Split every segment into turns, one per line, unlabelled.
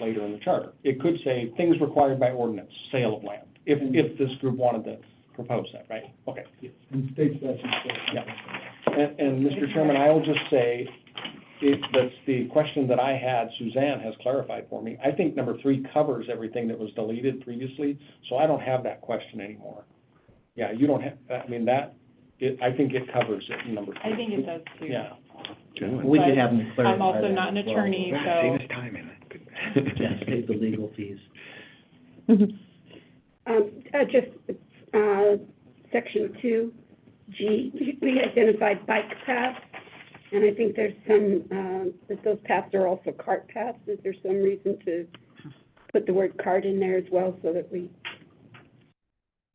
later in the charter. It could say, things required by ordinance, sale of land, if, if this group wanted to propose that, right? Okay.
And state statute says.
Yeah. And, and Mr. Chairman, I will just say, it, that's the question that I had, Suzanne has clarified for me. I think number three covers everything that was deleted previously, so I don't have that question anymore. Yeah, you don't have, I mean, that, it, I think it covers it in number
I
three.
think it does too.
Yeah.
We could have them clarify
I'm also
that
not an
as well.
attorney, so,
time in
Just pay the legal fees.
Um, uh, just, uh, section two, G, we- we identified bike paths, and I think there's some, um, that those paths are also cart paths. Is there some reason to put the word cart in there as well so that we?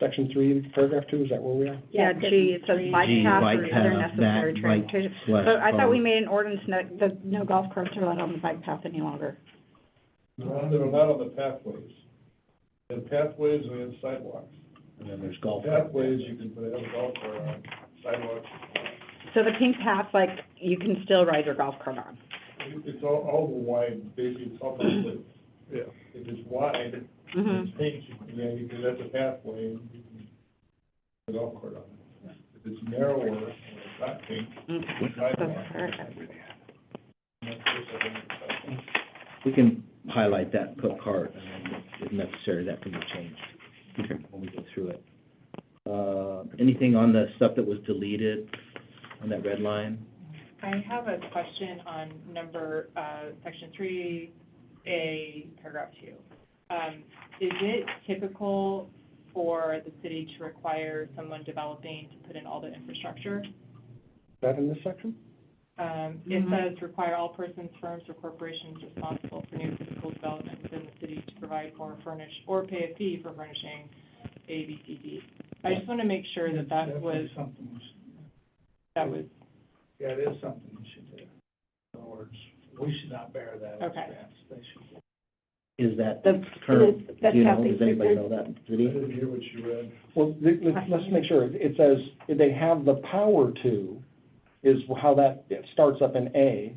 Section three, paragraph two, is that where we are?
Yeah, G, it says bike
Gee,
path
bike
or
path,
other necessary
that,
transportation.
What?
But I thought
Um,
we made an ordinance, no, the, no golf carts are allowed on the bike path any longer.
No, They're not on the pathways. And pathways and then sidewalks.
And then there's golf.
Pathways, you can put a golf cart on, sidewalks,
So the pink path, like, you can still ride your golf cart on.
It- it's all, all the wide, basically, it's all the, yeah, if it's wide,
Mm-hmm.
it's pink, you can, yeah, you can, that's a pathway, and you can put a golf cart on it. If it's narrower, and it's not pink, it's sidewalk.
That's perfect.
and that's just a little sidewalk.
We can highlight that, put cart, and then if necessary, that can be changed when we go through it. Uh, anything on the stuff that was deleted on that red line?
I have a question on number, uh, section three, A, paragraph two. Um, is it typical for the city to require someone developing to put in all the infrastructure?
Is that in this section?
Um, it
Mhm.
says require all persons, firms, or corporations responsible for new physical development within the city to provide for furnish, or pay a fee for furnishing A, B, C, D. I just want to make sure that that was,
Something we should-
that was,
Yeah, it is something we should do. In other words, we should not bear that
Okay.
expense. They should.
Is that
That's-
current,
that's-
do
that's
you
how
know,
they
does anybody know
present-
that, city?
hear what you read.
Well, th- let's, let's make sure, it says, they have the power to, is how that, it starts up in A,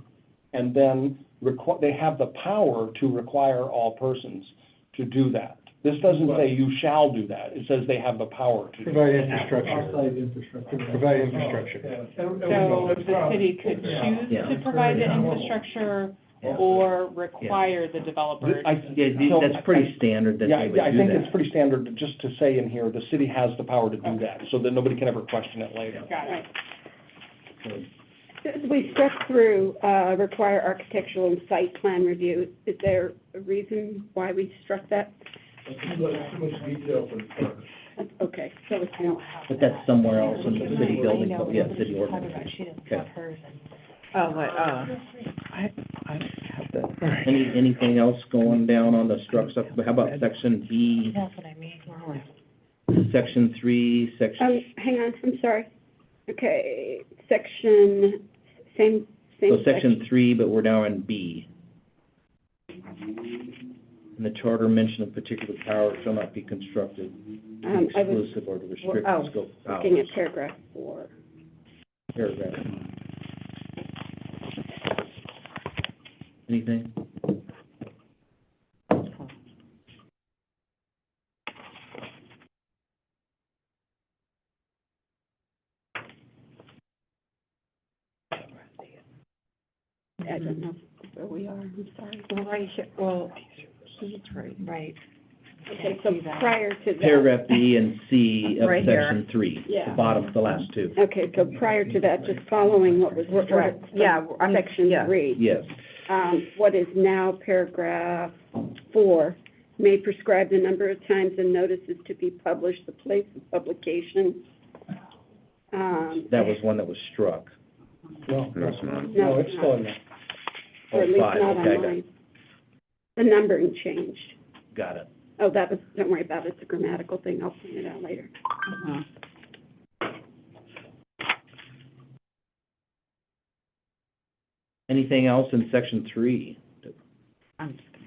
and then requ- they have the power to require all persons to do that. This doesn't say you shall do that, it says they have the power to.
Provide infrastructure,
Outside infrastructure.
provide infrastructure.
so the city could choose
Yeah.
to provide the
Yeah.
infrastructure
Yeah.
or require the developer.
I-
Yeah,
so-
that's pretty standard that
Yeah,
they would do
I-
that.
I think it's pretty standard to- just to say in here, the city has the power to do that, so that nobody can ever question it later.
Got it.
We struck through, uh, require architectural and site plan review. Is there a reason why we struck that? Okay, so it's no.
But that's somewhere else in the city building,
I know,
yeah,
but
city
she's talking
ordinance.
about she doesn't
Okay.
want hers and-
Oh, what, oh.
Any, anything else going down on the struck stuff, how about section B,
That's what I mean.
section three, section,
Um, hang on, I'm sorry. Okay, section, same, same
so section three, but we're now in B. And the charter mention of particular power shall not be constructed
Um, I was
exclusive or to restrict
oh,
the scope of
looking at
powers.
paragraph four.
Paragraph. Anything?
I don't know where we are, I'm sorry.
Well, right here, well, he's right. Right.
Okay, so prior to that.
Paragraph B and C of
Right here.
section three, the
Yeah.
bottom, the last two.
Okay, so prior to that, just following what was struck from
Yeah, I'm,
section
yeah.
three.
Yes.
Um, what is now paragraph four, may prescribe the number of times and notices to be published, the place of publication. Um,
That was one that was struck.
No,
No, it's not.
no, it's still in there.
Or at least
Oh, five,
not
okay, I got-
online. The numbering changed.
Got it.
Oh, that was, don't worry about it, it's a grammatical thing, I'll point it out later.
Mhm.
Anything else in section three?
I'm just gonna.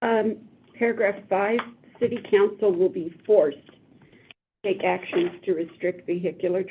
Um, paragraph five, city council will be forced take actions to restrict vehicular